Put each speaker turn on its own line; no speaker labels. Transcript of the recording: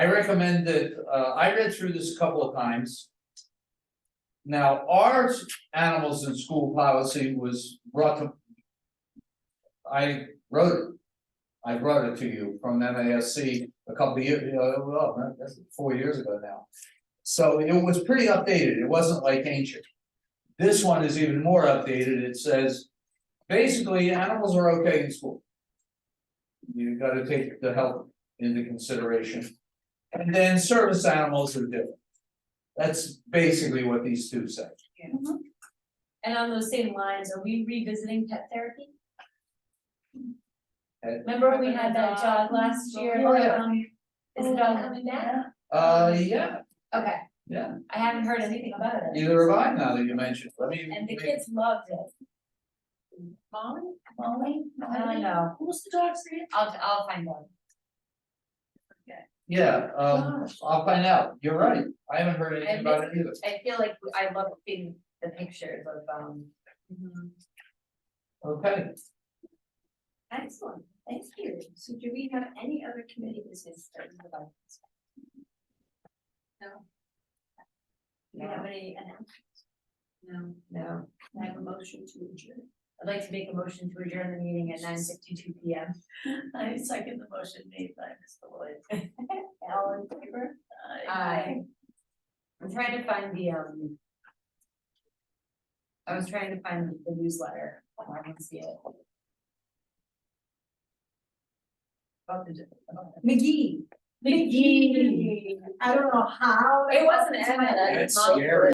I recommend that, uh, I read through this a couple of times. Now, our animals in school policy was brought to. I wrote it. I brought it to you from MASC a couple of years, uh, well, no, that's four years ago now. So it was pretty updated, it wasn't like ancient. This one is even more updated, it says, basically, animals are okay in school. You gotta take the health into consideration. And then service animals are different. That's basically what these two say.
And on those same lines, are we revisiting pet therapy?
Pet-
Remember we had that dog last year?
Oh, yeah.
um, Is the dog coming back?
Uh, yeah,
Okay,
yeah,
I haven't heard anything about it,
neither have I now that you mentioned, let me.
and the kids loved it. Molly? Molly? I don't know,
Who's the dog's name?
I'll, I'll find out.
Yeah, um,
Gosh.
I'll find out, you're right, I haven't heard anything about it either.
I feel like I love seeing the pictures of, um.
Mm-hmm.
Okay,
Excellent, thank you. So do we have any other committee business that we would like? to discuss? No. Do we have any announcements? No. No. I have a motion to adjourn.
I'd like to make a motion to adjourn the meeting at nine sixty-two P M.
I second the motion made by Mr. Lloyd.
All in favor? Aye. I'm trying to find the, um. I was trying to find the newsletter, Oh, I didn't see it. About the.
McGee.
McGee.
I don't know how.
It wasn't Emma,
that's
Molly.
scary.